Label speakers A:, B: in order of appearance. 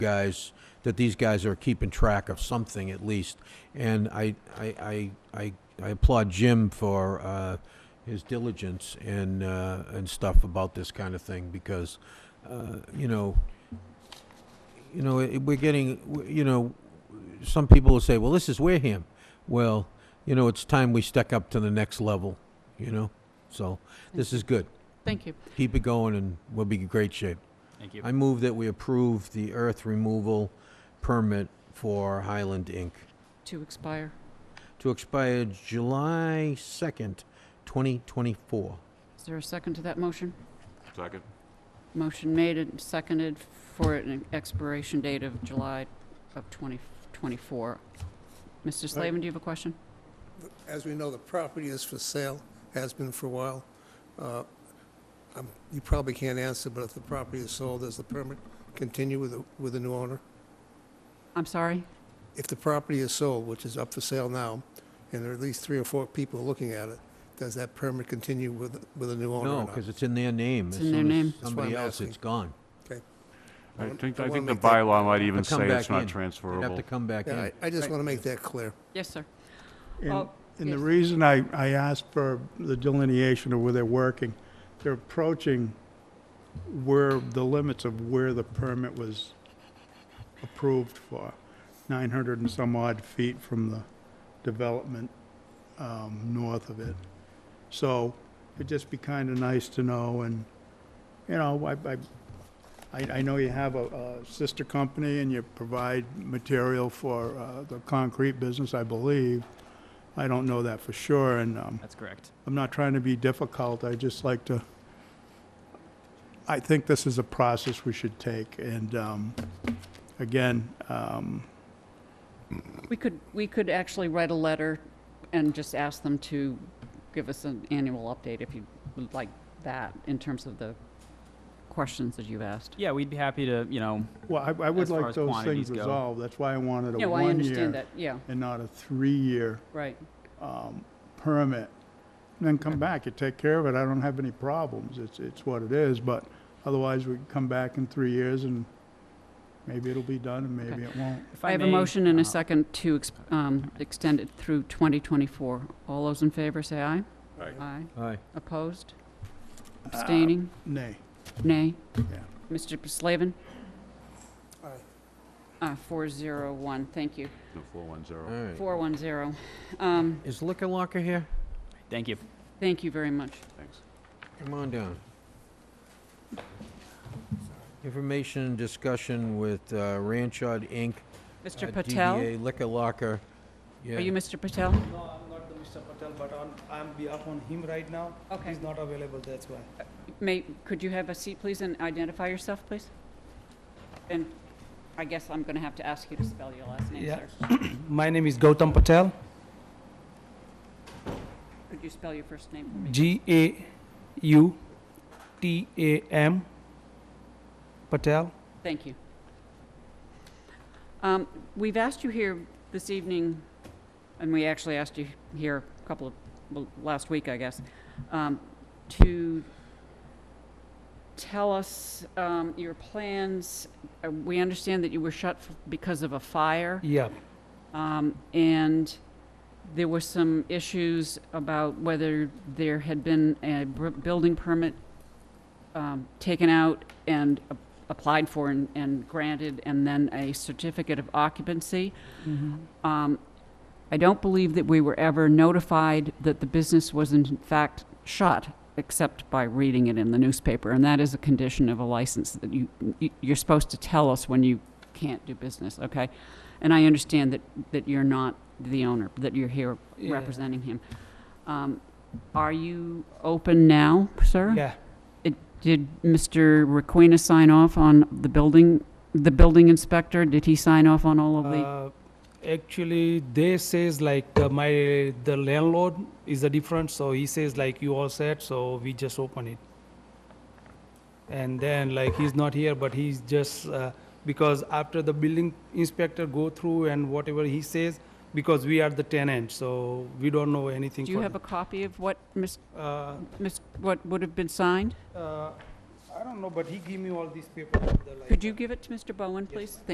A: guys, that these guys are keeping track of something at least. And I, I, I, I, I applaud Jim for, uh, his diligence and, uh, and stuff about this kind of thing because, uh, you know, you know, it- we're getting, w- you know, some people will say, well, this is Wareham. Well, you know, it's time we step up to the next level, you know? So this is good.
B: Thank you.
A: Keep it going and we'll be in great shape.
C: Thank you.
A: I move that we approve the earth removal permit for Highland Inc.
B: To expire.
A: to expire July 2nd, 2024.
B: Is there a second to that motion?
D: Second.
B: Motion made and seconded for an expiration date of July of 2024. Mr. Slavin, do you have a question?
E: As we know, the property is for sale, has been for a while. Uh, I'm- You probably can't answer, but if the property is sold, does the permit continue with, the- with the new owner?
B: I'm sorry?
E: If the property is sold, which is up for sale now, and there are at least three or four people looking at it, does that permit continue with, with the new owner or
A: No,
E: not?
A: because it's in their name.
B: It's
A: As
B: in their
A: soon as
B: name. That's
E: why
A: Somebody
E: I'm
A: else, it's
E: asking.
A: gone.
E: I
D: I
E: want-
D: think,
E: I
D: I
E: wanna
D: think the
E: make that-
D: bylaw might even
A: But come
D: say it's
A: back
D: not
A: in. They'd have
D: transferable.
A: to come back
E: Yeah,
A: in.
E: I I just want to make that clear.
B: Yes, sir.
F: And,
B: Oh,
F: and the
B: yes.
F: reason I, I asked for the delineation of where they're working, they're approaching where, the limits of where the permit was approved for, nine hundred and some odd feet from the development, um, north of it. So it'd just be kinda nice to know and, you know, I, I, I, I know you have a, a sister company and you provide material for, uh, the concrete business, I believe. I don't know that for sure, and um,
C: That's correct.
F: I'm not trying to be difficult. I just like to. I think this is a process we should take, and um, again, um,
B: We could, we could actually write a letter and just ask them to give us an annual update if you would like that in terms of the questions that you've asked.
C: Yeah, we'd be happy to, you know,
F: well, I, I would
C: As far
F: like
C: as
F: those
C: quantities
F: things
C: go.
F: resolved. That's why I wanted a
B: No, I
F: one
B: understand
F: year
B: that, yeah,
F: and not a three year
B: right.
F: um, permit. And then come back, you take care of it. I don't have any problems. It's it's what it is, but otherwise we can come back in three years and maybe it'll be done and maybe
B: Okay.
F: it won't.
C: if I,
B: I have a
C: may,
B: motion and
C: uh,
B: a second to ex- um, extend it through 2024. All those in favor, say aye.
E: Aye.
B: Aye.
A: Aye.
B: Opposed?
F: Uh,
B: Abstaining?
F: Nay.
B: Nay?
F: Yeah.
B: Mr. Slavin?
E: Aye.
B: Uh, 401, thank you.
D: No, four one
A: All
D: zero.
A: right.
B: 410. Um,
A: Is Liquor Locker here?
C: Thank you.
B: Thank you very much.
D: Thanks.
A: Come on down. Information and discussion with uh, Ranchard Inc. uh,
B: Mr. Patel?
A: DBA Liquor Locker.
B: Are you Mr. Patel?
G: No, I'm not the Mr. Patel, but on, I'm behalf on him right now.
B: Okay.
G: He's not available, that's why.
B: May, could you have a seat, please, and identify yourself, please? And I guess I'm going to have to ask you to spell your last name,
G: Yeah.
B: sir.
G: My name is Gautam Patel,
B: Could you spell your first name for me?
G: G-A-U-T-A-M, Patel.
B: Thank you. Um, We've asked you here this evening, and we actually asked you here a couple of, well, last week, I guess, um, to tell us um, your plans. Uh, We understand that you were shut f- because of a fire,
G: Yeah,
B: um, and there were some issues about whether there had been a br- building permit um, taken out and a- applied for and- and granted, and then a certificate of occupancy. Um, I don't believe that we were ever notified that the business was in fact shut, except by reading it in the newspaper, and that is a condition of a license, that you, you- you're supposed to tell us when you can't do business, okay? And I understand that, that you're not the owner, that you're here
G: Yeah.
B: representing him. Um, Are you open now, sir?
G: yeah,
B: Did Mr. Requena sign off on the building, the building inspector? Did he sign off on all of the?
G: Uh, Actually, they says like uh, my, the landlord is a different, so he says like you all said, so we just open it. And then like he's not here, but he's just, uh, because after the building inspector go through and whatever he says, because we are the tenant, so we don't know anything.
B: Do you
G: for
B: have a copy of what, Ms.,
G: the- Uh,
B: Ms., what would have been signed?
G: uh, I don't know, but he give me all these papers. of the, like,
B: Could you give it to Mr. Bowen, please?